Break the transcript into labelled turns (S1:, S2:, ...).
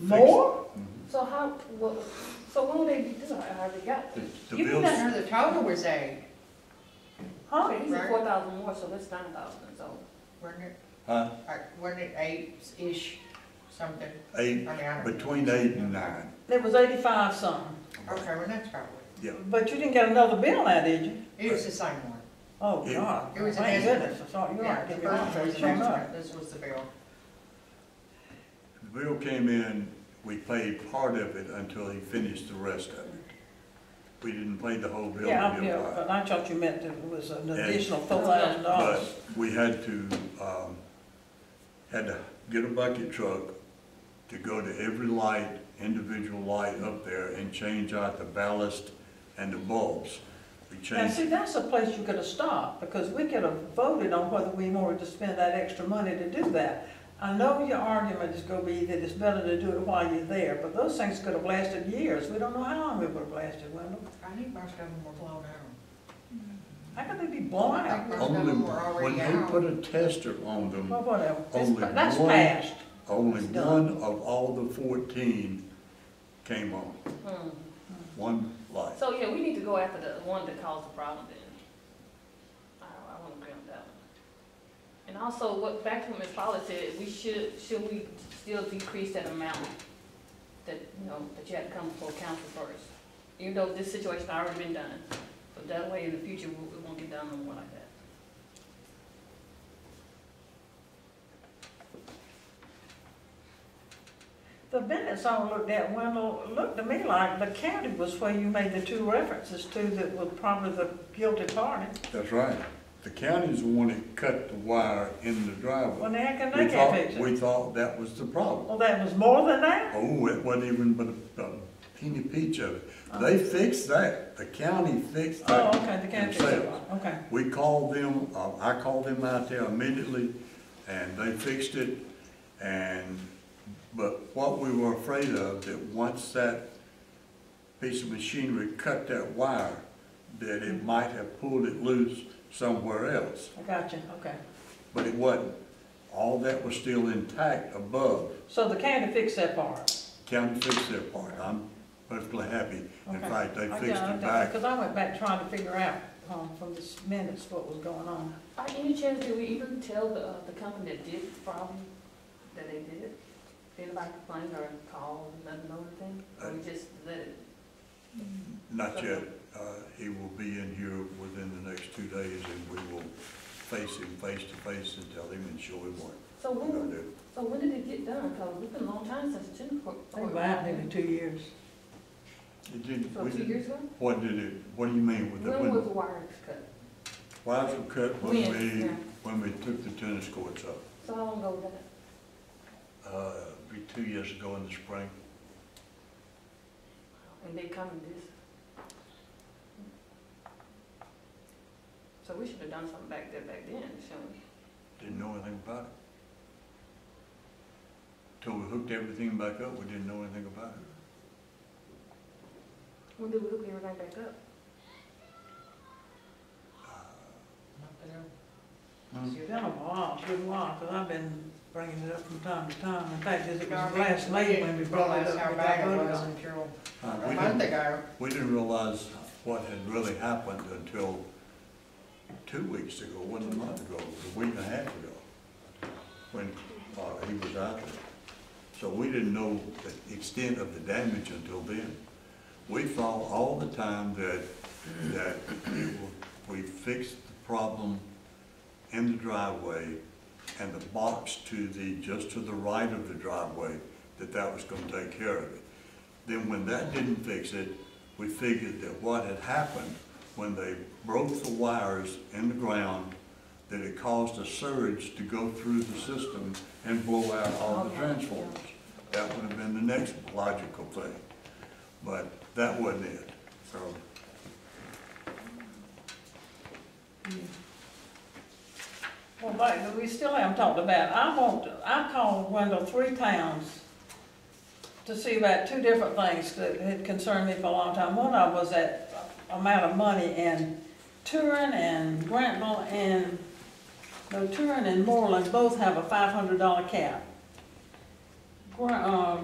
S1: More?
S2: So how, what, so when will they, this is already got,
S3: The the
S4: You didn't
S3: bills,
S4: know the total was eight,
S2: huh, these are
S4: Right.
S2: four thousand more, so it's nine thousand, so.
S4: wasn't it,
S3: huh,
S4: Like, wasn't it eight-ish something? I
S3: eight,
S4: mean, I don't.
S3: between eight and nine,
S1: It was eighty-five something,
S4: Okay, well, that's probably,
S3: yeah.
S1: but you didn't get another bill now, did you?
S4: it was the same one.
S1: Oh,
S3: Yeah.
S1: God.
S4: It was
S1: My
S4: an answer.
S1: goodness, I thought you were
S4: Yeah,
S1: right,
S4: the
S1: give me
S4: first
S1: that,
S4: one
S1: it
S4: was the
S1: came
S4: next
S1: up.
S4: one, this was the bill.
S3: The bill came in, we paid part of it until he finished the rest of it. We didn't pay the whole bill.
S1: Yeah,
S3: to
S1: I'm-
S3: the
S1: yeah,
S3: apply.
S1: but I thought you meant it was an
S3: Yeah.
S1: additional four thousand
S3: But
S1: dollars.
S3: we had to, um, had to get a bucket truck to go to every light, individual light up there and change out the ballast and the bulbs. We
S1: Now,
S3: changed,
S1: see, that's a place you could have stopped, because we could have voted on whether we wanted to spend that extra money to do that. I know your argument is gonna be that it's better to do it while you're there, but those things could have lasted years. We don't know how long they would have lasted, Wendell.
S4: I think most of them were blown out.
S1: How could they be blown
S4: I
S1: out?
S4: think most of
S3: only,
S4: them were already
S3: when they put
S4: out.
S3: a tester on them,
S1: Well, whatever, It's-
S3: Only
S1: that's
S3: one-
S1: past.
S3: only
S1: It's done.
S3: one of all the fourteen came on,
S2: hmm.
S3: one light.
S2: So, yeah, we need to go after the one that caused the problem then. I, I wanna agree on that one. And also, what, back to what Ms. Paula said, we should, should we still decrease that amount that, you know, that you had to come before council first? Even though this situation already been done, but that way in the future, we, we won't get done no more like that.
S1: The minutes I looked at, Wendell, looked to me like the county was where you made the two references to that were probably the guilty party.
S3: That's right. The county's the one that cut the wire in the
S1: Well,
S3: driveway.
S1: now how can
S3: We
S1: they get
S3: thought-
S1: fixed?
S3: We thought that was the problem.
S1: Well, that was more than that?
S3: Oh, it wasn't even but a a teeny peach of it. They fixed that, the county fixed
S1: Uh-huh. Oh,
S3: that.
S1: okay, the county fixed it,
S3: themselves.
S1: okay.
S3: We called them, uh, I called them out there immediately, and they fixed it, and, but what we were afraid of, that once that piece of machinery cut that wire, that it might have pulled it loose somewhere else,
S1: I got you, okay.
S3: but it wasn't. All that was still intact above.
S1: So the county fixed that part?
S3: County fixed their part, I'm perfectly happy. In
S1: Okay.
S3: fact, they
S1: I
S3: fixed
S1: got
S3: it back.
S1: Because I went back trying to figure out um, from this minutes what was going on.
S2: By any chance, did we even tell the, uh, the company that did the problem, that they did it? Did anybody complain or call, let them know anything? Or we just let it,
S3: Not yet, uh, he will be in here within the next two days and we will face him face to face and tell him and show him what
S2: so
S3: we're gonna
S2: when,
S3: do.
S2: so when did it get done? Cause it's been a long time since Jennifer.
S1: I think about it in two years.
S3: It didn't,
S2: So
S3: we
S2: two
S3: didn't-
S2: years ago?
S3: what did it, what do you mean with the,
S2: When was
S3: when,
S2: the wires cut?
S3: wires were cut when
S2: When,
S3: we,
S2: yeah.
S3: when we took the tennis courts up?
S2: So how long ago was that?
S3: Uh, be two years ago in the spring.
S2: And they come and this? So we should have done something back there back then, shouldn't we?
S3: Didn't know anything about it. Till we hooked everything back up, we didn't know anything about it.
S2: When did we hook everything back up?
S3: Hmm.
S1: It's been a while, it's been a while, because I've been bringing it up from time to time. In fact, it was
S4: Darlene,
S1: last
S4: we
S1: May
S4: didn't
S1: when we brought it
S4: realize
S1: up.
S4: How
S1: we
S4: bad it
S1: voted
S4: was
S1: on it.
S4: until
S3: Uh, we
S4: a
S3: didn't-
S4: month ago.
S3: We didn't realize what had really happened until two weeks ago, one month ago, a week and a half ago, when uh, he was out there. So we didn't know the extent of the damage until then. We thought all the time that, that it wa- we fixed the problem in the driveway and the box to the, just to the right of the driveway, that that was gonna take care of it. Then when that didn't fix it, we figured that what had happened when they broke the wires in the ground, that it caused a surge to go through the system and blow out all the
S2: Okay.
S3: transformers. That would have been the next logical thing, but that wasn't it, so.
S1: Well, but we still haven't talked about, I want, I called Wendell three times to see about two different things that had concerned me for a long time. One of them was that amount of money and Turin and Grantville and, no, Turin and Moreland both have a five hundred dollar cap. Gra- uh,